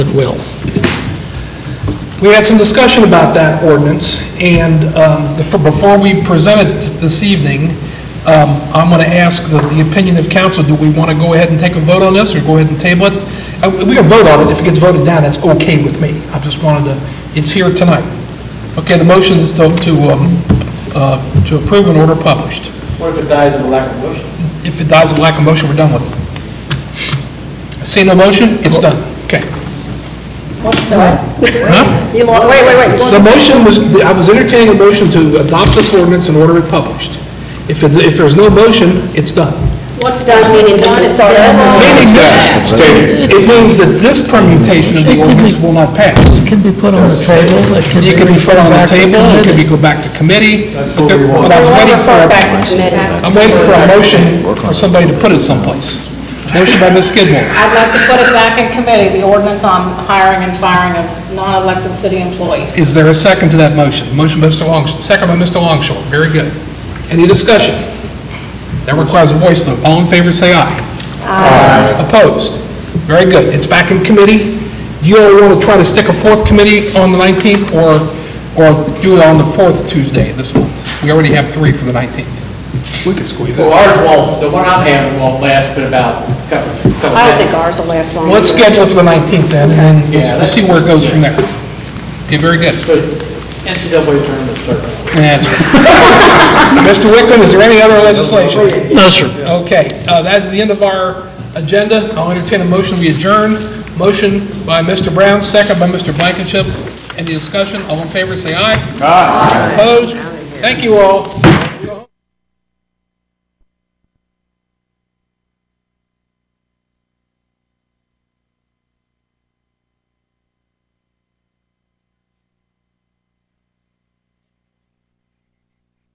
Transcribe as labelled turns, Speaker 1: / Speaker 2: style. Speaker 1: at will.
Speaker 2: We had some discussion about that ordinance, and um, the- for- before we present it this evening, um, I'm going to ask the- the opinion of council, do we want to go ahead and take a vote on this, or go ahead and table it? Uh, We can vote on it, if it gets voted down, that's okay with me, I just wanted to, it's here tonight. Okay, the motion is to, to um, uh, to approve an order published.
Speaker 3: What if it dies of a lack of motion?
Speaker 2: If it dies of lack of motion, we're done with it. See no motion, it's done, okay.
Speaker 4: You lo- wait, wait, wait.
Speaker 2: So motion was, I was entertaining a motion to adopt this ordinance and order it published. If it's, if there's no motion, it's done.
Speaker 4: What's done, meaning you can start over?
Speaker 2: Meaning this, it means that this permutation of the ordinance will not pass.
Speaker 1: It can be put on the table, it can be...
Speaker 2: It could be put on the
Speaker 1: back to
Speaker 2: table, it could be
Speaker 1: committee.
Speaker 2: go back to committee. but there- But I was
Speaker 4: We'll
Speaker 2: waiting
Speaker 4: refer
Speaker 2: for,
Speaker 4: back to committee.
Speaker 2: I'm waiting for a motion for somebody to put it someplace. Motion by Ms. Skidmore.
Speaker 5: I'd like to put it back in committee, the ordinance on hiring and firing of non-elected city employees.
Speaker 2: Is there a second to that motion? Motion by Mr. Longshore, second by Mr. Longshore, very good. Any discussion? That requires a voice vote. All in favor, say aye. Aye. Opposed? Very good. It's back in committee. Do you all want to try to stick a fourth committee on the 19th, or, or do it on the fourth Tuesday this month? We already have three for the 19th. We could squeeze
Speaker 3: So
Speaker 2: it.
Speaker 3: ours won't, the one I'm having won't last but about a couple, couple
Speaker 4: I don't think
Speaker 3: days.
Speaker 4: ours will last long.
Speaker 2: Let's schedule it for the 19th then, and then we'll
Speaker 3: Yeah,
Speaker 2: we'll see where it goes from there. Okay, very good.
Speaker 3: But NCAA tournament certainly.
Speaker 2: That's right. Mr. Wickman, is there any other legislation?
Speaker 1: No, sir.
Speaker 2: Okay, uh, that's the end of our agenda. I'll entertain a motion to adjourn. Motion by Mr. Brown, second by Mr. Blankenship. Any discussion? All in favor, say aye. Aye. Opposed? Thank you all.